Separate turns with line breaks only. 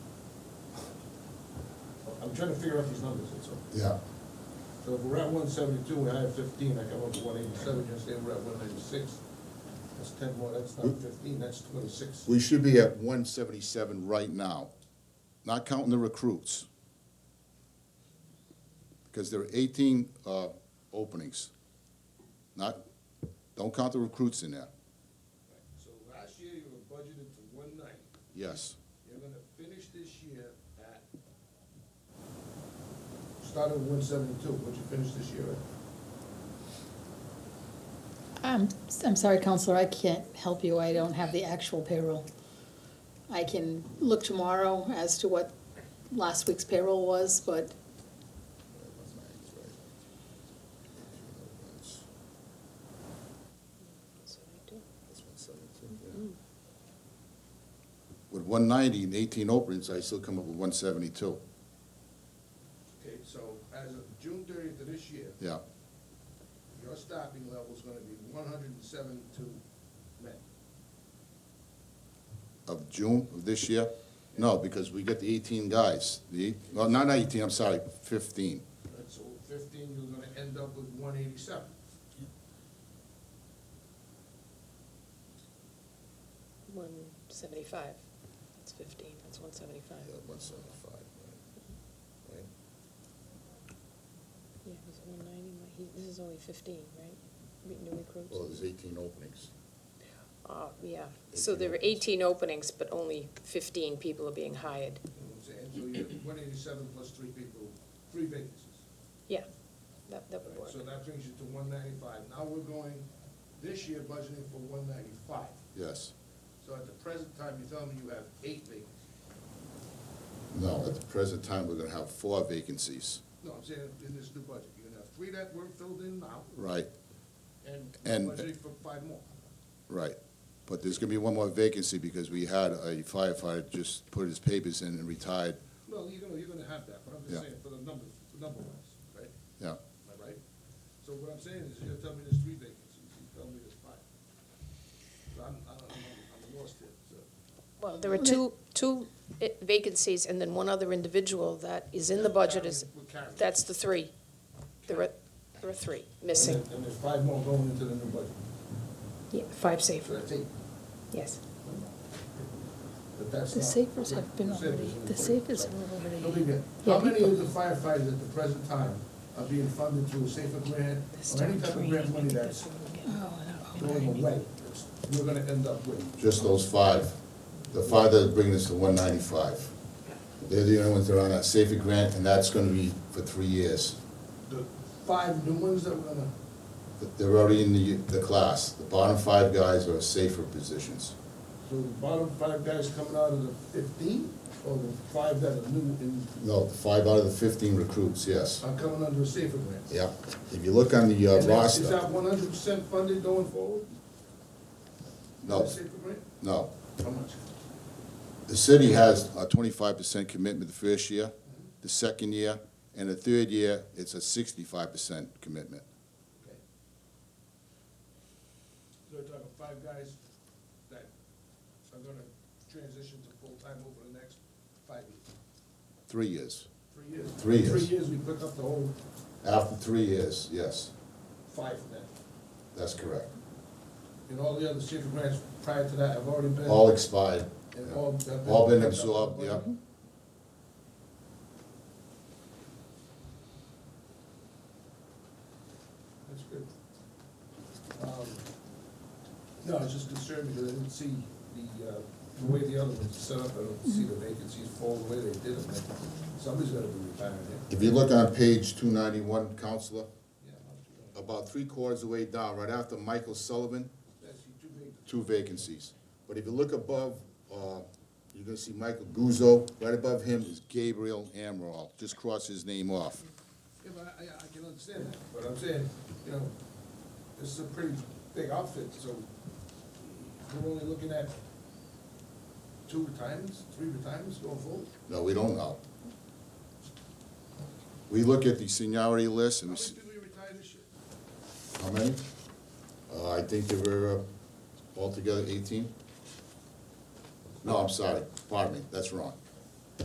I'm trying to figure out these numbers, that's all.
Yeah,
So if we're at one seventy-two, we have fifteen, I come up with one eighty-seven, you say we're at one ninety-six. That's ten more, that's not fifteen, that's twenty-six.
we should be at one seventy-seven right now, not counting the recruits. Because there are eighteen, uh, openings. Not, don't count the recruits in there,
So last year you were budgeted to one ninety,
yes.
you're gonna finish this year at. Started with one seventy-two, what'd you finish this year at?
I'm, I'm sorry, Counselor, I can't help you. I don't have the actual payroll. I can look tomorrow as to what last week's payroll was, but
With one ninety and eighteen openings, I still come up with one seventy-two,
Okay, so as of June thirtieth of this year,
yeah,
your staffing level's gonna be one hundred and seventy-two men.
of June of this year? No, because we get the eighteen guys, the, eight- well, not eighteen, I'm sorry, fifteen.
Right, so fifteen, you're gonna end up with one eighty-seven.
One seventy-five, that's fifteen, that's one seventy-five.
one seventy-five, right?
Yeah, because one ninety, he, this is only fifteen, right? Re- New recruits?
Well, there's eighteen openings.
Uh, yeah, so there were eighteen openings, but only fifteen people are being hired.
You know what I'm saying? So you have one eighty-seven plus three people, three vacancies.
Yeah, that, that would
Right,
work.
So that brings you to one ninety-five. Now we're going, this year budgeting for one ninety-five.
Yes,
So at the present time, you're telling me you have eight vacancies.
no, at the present time, we're gonna have four vacancies,
No, I'm saying in this new budget, you're gonna have three that were filled in now
right,
and
And-
budgeting for five more.
right. But there's gonna be one more vacancy because we had a firefighter just put his papers in and retired,
No, you're gonna, you're gonna have that, but I'm just
Yeah.
saying for the numbers, the number wise, right?
yeah.
Am I right? So what I'm saying is, you're telling me there's three vacancies, you tell me there's five. So I'm, I don't know, I'm lost here, so.
Well, there were two, two i- vacancies and then one other individual that is in the budget is,
We're carrying.
that's the three. There are, there are three missing.
And there- And there's five more going into the new budget,
Yeah, five
so
safer,
that's eight,
yes.
but that's
the
not-
safers have been
The safers
already,
are
the
important.
safers were
So, don't leave
already.
it. How
Yeah,
many
people-
of the firefighters at the present time are being funded through a safer grant or any type of grant money that's
Oh,
going away? You're gonna end up with,
Just those five. The five that are bringing us to one ninety-five. They're the only ones that are on that safety grant, and that's gonna be for three years.
the five new ones that we're gonna,
They're already in the, the class. The bottom five guys are safer positions.
so the bottom five guys coming out of the fifteen? Or the five that are new and
No, the five out of the fifteen recruits, yes.
are coming under a safer grant?
Yep. If you look on the uh,
And that's- Is that
roster,
one hundred percent funded going forward?
no,
Safer grant?
no.
How much?
The city has a twenty-five percent commitment the first year, the second year, and the third year, it's a sixty-five percent commitment.
Okay. So we're talking five guys that are gonna transition to full-time over the next five years,
Three years.
three years?
Three years.
Three years, we pick up the whole
After three years, yes,
five then.
that's correct.
And all the other safer grants prior to that have already been.
All expired.
and
yeah.
all have
All been
picked up.
absorbed, yeah.
That's good. Um, No, I was just concerned because I didn't see the, uh, the way the other ones are set up, I don't see the vacancies fall the way they did them. Somebody's gonna be retiring there.
If you look on page two ninety-one, counselor,
Yeah, I'll do that.
about three quarters of the way down, right after Michael Sullivan,
That's too big.
two vacancies. But if you look above, uh, you're gonna see Michael Guzzo, right above him is Gabriel Amaral, just cross his name off.
Yeah, but I, I- I can understand that, but I'm saying, you know, this is a pretty big outfit, so we're only looking at two retirements, three retirements going forward?
No, we don't know. We look at the seniority list
How
and we
many
see,
people retired this year?
how many? Uh, I think there were uh, altogether eighteen. No, I'm sorry, pardon me, that's wrong.